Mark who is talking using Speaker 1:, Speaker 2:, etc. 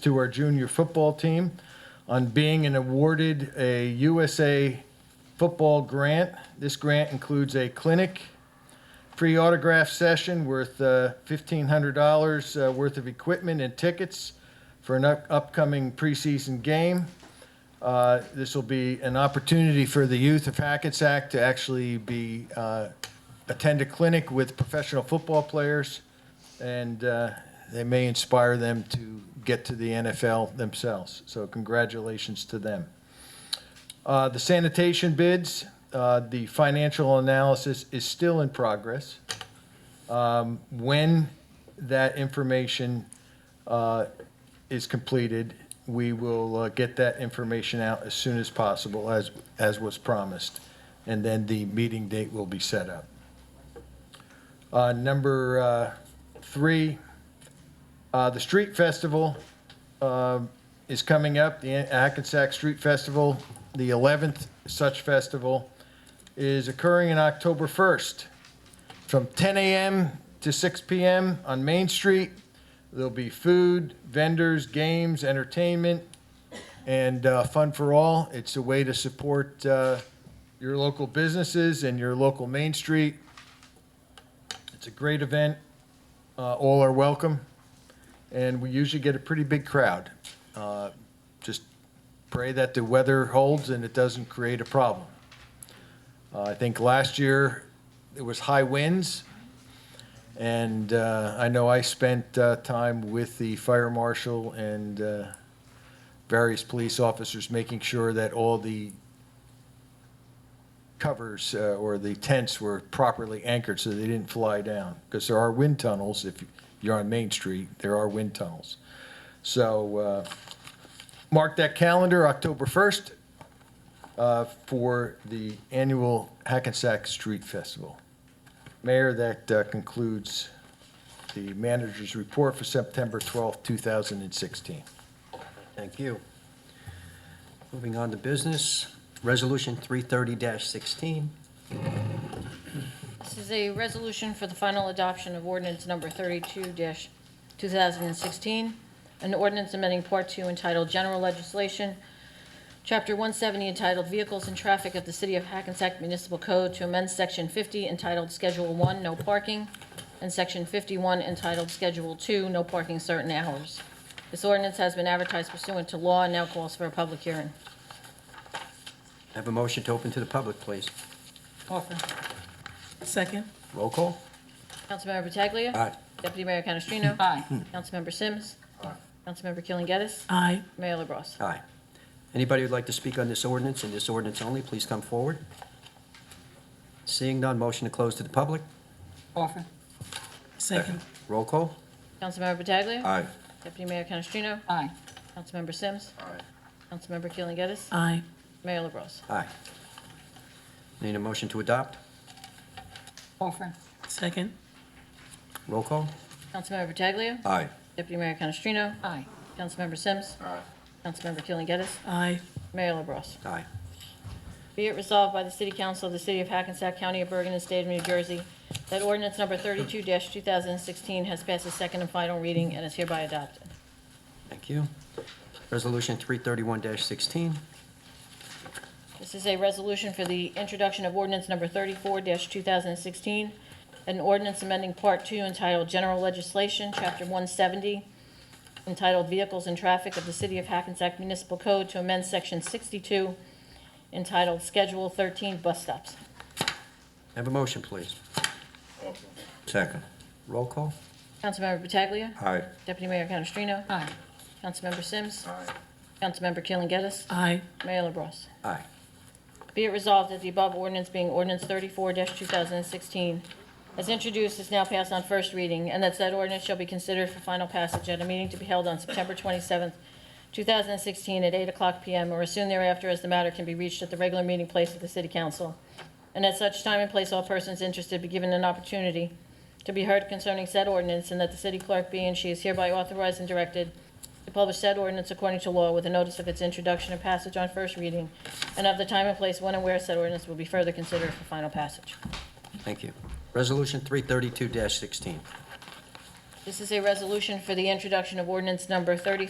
Speaker 1: to our junior football team on being an awarded a USA football grant. This grant includes a clinic, free autograph session worth uh, $1,500 uh, worth of equipment and tickets for an up- upcoming preseason game. Uh, This will be an opportunity for the youth of Hackensack to actually be, uh, attend a clinic with professional football players, and uh, they may inspire them to get to the NFL themselves. So congratulations to them. Uh, The sanitation bids, uh, the financial analysis is still in progress. Um, When that information uh, is completed, we will uh, get that information out as soon as possible, as, as was promised. And then the meeting date will be set up. Uh, Number uh, three, uh, the Street Festival uh, is coming up, the Hackensack Street Festival. The 11th such festival is occurring on October 1st from 10 a.m. to 6 p.m. on Main Street. There'll be food, vendors, games, entertainment, and uh, fun for all. It's a way to support uh, your local businesses and your local Main Street. It's a great event. Uh, all are welcome, and we usually get a pretty big crowd. Uh, just pray that the weather holds and it doesn't create a problem. Uh, I think last year it was high winds, and uh, I know I spent uh, time with the fire marshal and uh, various police officers making sure that all the covers uh, or the tents were properly anchored so they didn't fly down. Because there are wind tunnels, if you're on Main Street, there are wind tunnels. So uh, mark that calendar, October 1st, uh, for the annual Hackensack Street Festival. Mayor, that uh, concludes the manager's report for September 12th, 2016.
Speaker 2: Thank you. Moving on to business, Resolution 330-16.
Speaker 3: This is a resolution for the final adoption of ordinance number 32-2016, an ordinance amending Part 2 entitled General Legislation, Chapter 170 entitled Vehicles and Traffic of the City of Hackensack Municipal Code to amend Section 50 entitled Schedule 1, No Parking, and Section 51 entitled Schedule 2, No Parking Certain Hours. This ordinance has been advertised pursuant to law and now calls for a public hearing.
Speaker 2: Have a motion to open to the public, please.
Speaker 3: Offer.
Speaker 4: Second,
Speaker 2: Roll call?
Speaker 3: Councilmember Pataglia.
Speaker 2: Aye. Hmm.
Speaker 3: Deputy Mayor Canestrino. Aye. Councilmember Sims. Aye. Councilmember Killen Geddes.
Speaker 4: aye.
Speaker 3: Mayor LaBrus.
Speaker 2: Aye. Anybody who'd like to speak on this ordinance and this ordinance only, please come forward. Seeing none, motion to close to the public.
Speaker 3: Offer.
Speaker 4: Second,
Speaker 2: Roll call?
Speaker 3: Councilmember Pataglia.
Speaker 2: Aye.
Speaker 3: Deputy Mayor Canestrino.
Speaker 5: Aye.
Speaker 3: Councilmember Sims. Aye. Councilmember Killen Geddes.
Speaker 4: aye.
Speaker 3: Mayor LaBrus.
Speaker 2: Aye. Need a motion to adopt?
Speaker 5: Offer.
Speaker 4: Second,
Speaker 2: Roll call?
Speaker 3: Councilmember Pataglia.
Speaker 2: Aye.
Speaker 3: Deputy Mayor Canestrino.
Speaker 5: Aye.
Speaker 3: Councilmember Sims. Aye. Councilmember Killen Geddes.
Speaker 4: aye.
Speaker 3: Mayor LaBrus.
Speaker 2: Aye.
Speaker 3: Be it resolved by the City Council of the City of Hackensack County of Bergen and State of New Jersey that ordinance number 32-2016 has passed its second and final reading and is hereby adopted.
Speaker 2: Thank you. Resolution 331-16.
Speaker 3: This is a resolution for the introduction of ordinance number 34-2016, an ordinance amending Part 2 entitled General Legislation, Chapter 170, entitled Vehicles and Traffic of the City of Hackensack Municipal Code to amend Section 62, entitled Schedule 13 Bus Stops.
Speaker 2: Have a motion, please. Second. Roll call?
Speaker 3: Councilmember Pataglia.
Speaker 2: Aye.
Speaker 3: Deputy Mayor Canestrino.
Speaker 5: Aye.
Speaker 3: Councilmember Sims. Aye. Councilmember Keeling Geddes.
Speaker 4: Aye,
Speaker 3: Mayor LaBrus.
Speaker 2: Aye.
Speaker 3: Be it resolved that the above ordinance being ordinance 34-2016, as introduced, is now passed on first reading, and that said ordinance shall be considered for final passage at a meeting to be held on September 27th, 2016, at 8 o'clock p.m. or as soon thereafter as the matter can be reached at the regular meeting place of the City Council. And at such time and place, all persons interested be given an opportunity to be heard concerning said ordinance, and that the city clerk be and she is hereby authorized and directed to publish said ordinance according to law with a notice of its introduction and passage on first reading, and of the time and place when and where said ordinance will be further considered for final passage.
Speaker 2: Thank you. Resolution 332-16.
Speaker 3: This is a resolution for the introduction of ordinance number 30.